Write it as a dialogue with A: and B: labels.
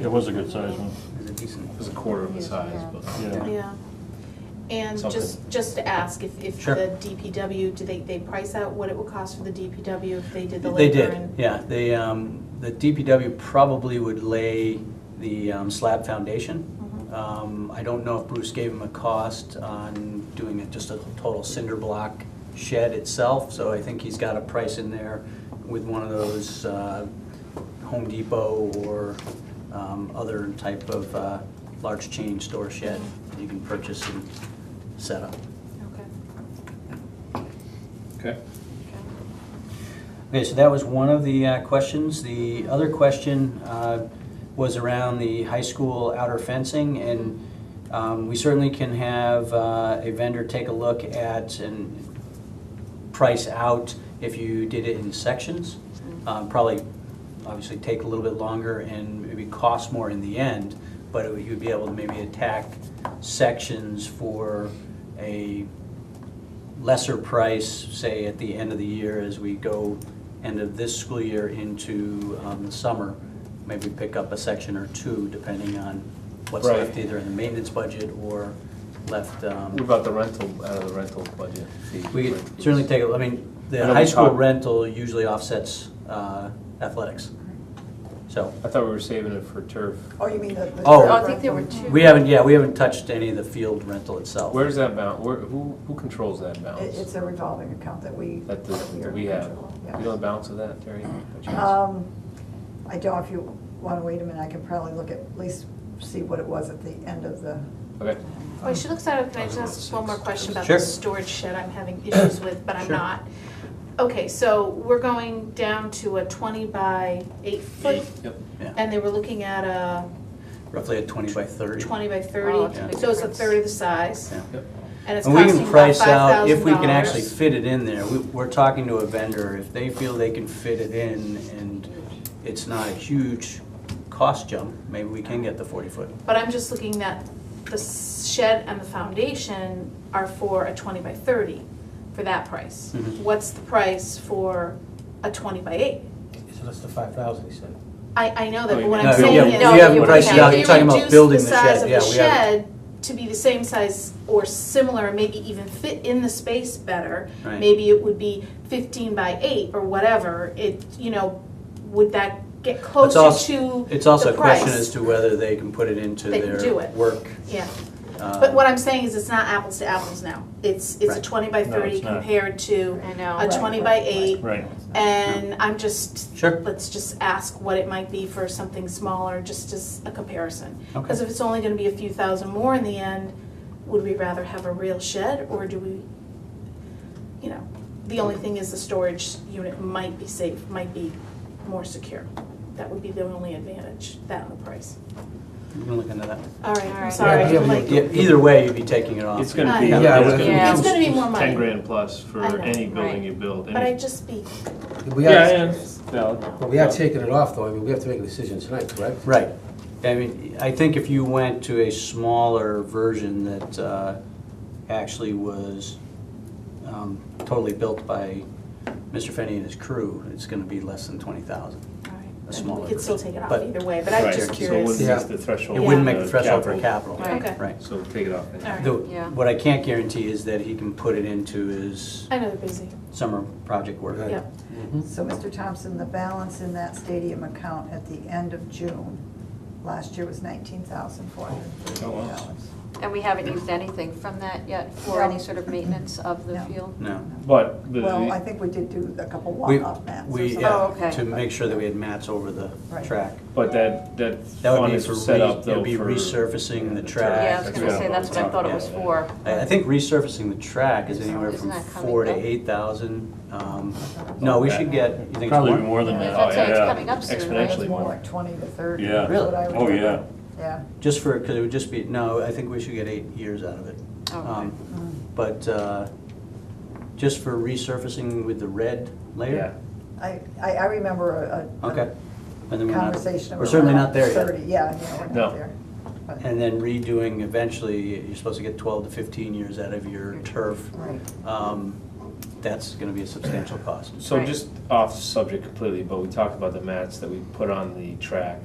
A: It was a good sized one.
B: It's a decent.
C: It was a quarter of the
D: Yeah.
C: size, but.
A: Yeah.
D: Yeah. And
C: Something.
D: just, just to ask if, if
B: Sure.
D: the DPW, do they, they price out what it would cost for the DPW if they did the
B: They
D: labor?
B: did,
D: and-
B: yeah. They, um, the DPW probably would lay the um, slab foundation.
D: Mhm.
B: Um, I don't know if Bruce gave him a cost on doing it just a total cinder block shed itself, so I think he's got a price in there with one of those uh, Home Depot or um, other type of uh, large chain store shed that you can purchase and set up.
D: Okay.
C: Okay.
D: Okay.
B: Okay, so that was one of the uh, questions. The other question uh, was around the high school outer fencing, and um, we certainly can have uh, a vendor take a look at and price out if you did it in sections. Um, Probably, obviously, take a little bit longer and maybe cost more in the end, but it would- you'd be able to maybe attack sections for a lesser price, say, at the end of the year as we go end of this school year into um, the summer. Maybe pick up a section or two, depending on what's
C: Right.
B: left either in the maintenance budget or left. um,
C: What about the rental, out of the rental budget? fee?
B: we could certainly take, a I mean,
C: I
B: the
C: know
B: high
C: we
B: school
C: talked-
B: rental usually offsets uh, athletics. So,
C: I thought we were saving it for turf.
E: Oh, you mean the. the-
B: Oh.
F: I think there were two.
B: we haven't, yeah, we haven't touched any of the field rental itself.
C: Where's that bound, where, who, who controls that
E: It- It's
C: balance?
E: a revolving account that we.
C: That, the-
E: are
C: that
E: in
C: we have?
E: control of,
C: You know the balance of that, Terry? by
E: yeah.
C: chance?
E: Um, I don't, if you want to wait a minute, I can probably look at, at least see what it was at the end of the.
C: Okay,
D: Wait, Oh, she looks out, can I just ask one more question about
B: Sure.
D: the storage shed I'm having issues with, but I'm
B: Sure.
D: not? Okay, so we're going down to a twenty by eight foot,
C: yep.
B: Yeah,
D: and they were looking at a
B: Roughly at 20 by 30.
D: twenty by
F: Oh, that's a
D: thirty,
F: big
D: so it's a
F: difference.
D: third of the size,
B: Yeah.
C: Yep.
D: and it's
B: And we
D: costing
B: can
D: about five
B: price
D: thousand dollars.
B: out if we can actually fit it in there. We- We're talking to a vendor, if they feel they can fit it in and it's not a huge cost jump, maybe we can get the 40-foot.
D: But I'm just looking that the shed and the foundation are for a twenty by thirty for that price.
B: Mhm.
D: What's the price for a twenty by eight?
G: So that's the five thousand, he said.
D: I, I know that,
C: Oh,
D: but
C: you
D: what
B: No,
D: I'm
B: yeah,
D: saying is.
B: we
F: No,
B: haven't
F: you
B: priced it
F: can't.
B: out. You're talking about building the shed, yeah,
D: If you reduce the size
B: we
D: of
B: haven't.
D: the shed to be the same size or similar, maybe even fit in the space better,
B: Right.
D: maybe it would be fifteen by eight or whatever, it, you know, would that get
B: It's
D: closer
B: also-
D: to
B: It's also
D: the
B: a question
D: price.
B: as to whether they can put it into
D: They can do
B: their
D: it.
B: work.
D: Yeah.
B: uh,
D: But what I'm saying is it's not apples to apples now. It's, it's a
B: Right.
D: twenty by
A: No,
D: thirty
A: it's not.
D: compared to
F: I
D: a
F: know.
E: Right,
D: twenty by
E: right,
D: eight.
A: Right.
D: And I'm just,
B: Sure.
D: let's just ask what it might be for something smaller, just as a comparison.
B: Okay.
D: Because if it's only gonna be a few thousand more in the end, would we rather have a real shed or do we, you know, the only thing is the storage unit might be safe, might be more secure. That would be the only advantage, that and the price.
B: You can look into that.
D: All right,
F: All
D: I'm
F: right.
D: sorry,
G: Yeah, yeah,
D: I'm like-
B: Yeah, e-, either way, you'd be taking it off.
C: It's gonna be,
D: Yeah,
G: Yeah,
C: it's
G: but-
C: gonna be
F: Yeah.
D: It's gonna be more money.
C: ten grand plus for
D: I know,
C: any building
F: right.
C: you build.
D: But
C: any-
D: I'd just be
G: We
C: Yeah,
G: are,
C: yeah, valid.
G: but we are taking it off though, I mean, we have to make a decision tonight, correct?
B: Right. I mean, I think if you went to a smaller version that uh, actually was um, totally built by Mr. Fenny and his crew, it's gonna be less than twenty thousand.
D: Alright, and
B: smaller
D: We could still take it off
B: but-
D: either way, but I'm
C: Right,
D: just
C: So it
D: curious.
C: wouldn't
G: Yeah.
C: miss the threshold.
B: It wouldn't make
C: for
B: the threshold for capital.
F: Right.
D: Okay.
B: Right.
C: So take it off. then.
D: Alright.
B: The-
F: Yeah.
B: What I can't guarantee is that he can put it into his
D: I know they're busy,
B: summer project work.
G: Right.
D: yeah.
E: So, Mr. Thompson, the balance in that stadium account at the end of June last year was nineteen thousand four hundred and
C: Oh,
E: thirty-eight dollars.
F: And we haven't used anything from that yet for
E: No.
F: any sort of maintenance of the
E: No.
F: field?
B: No.
C: But the-
E: Well, I think we did do a couple
B: We-
E: walk-off mats or
B: We,
E: something.
B: yeah,
F: Oh, okay.
B: to make sure that we had mats over the
E: Right.
B: track.
C: But that, that
B: That would
C: fund
B: be
C: is
B: for,
C: set
B: re-
C: up
B: it
C: though
B: would be
C: for.
B: resurfacing the
C: Yeah,
B: track.
F: Yeah, I was gonna say, that's what I thought it was for.
B: I, I think resurfacing the track is
F: It's not-
B: anywhere
F: it's
B: from
F: not coming
B: four to
F: up.
B: eight thousand. Um, no, we should get, you think it's
A: Probably
B: more?
A: more than that.
F: That's
C: Oh,
F: how it's
C: yeah.
F: coming up
E: It
F: soon,
E: was
C: Exponentially.
F: right?
E: more like twenty to thirty.
A: Yeah.
E: is
B: Really?
E: what I would
A: Oh,
E: think.
A: yeah.
E: Yeah.
B: Just for, because it would just be, no, I think we should get eight years out of it.
F: Oh, okay.
B: Um, But, uh, just for resurfacing with the red
C: Yeah.
B: layer?
E: I, I I remember a- a.
B: Okay. And then we're not-
E: Conversation.
B: We're certainly not there
E: Thirty,
B: yet.
E: yeah, yeah, we're
C: No.
E: not there. But-
B: And then redoing, eventually, you're supposed to get twelve to fifteen years out of your turf.
E: Right.
B: Um, That's gonna be a substantial cost.
C: So
F: Right.
C: just off subject completely, but we talked about the mats that we put on the track.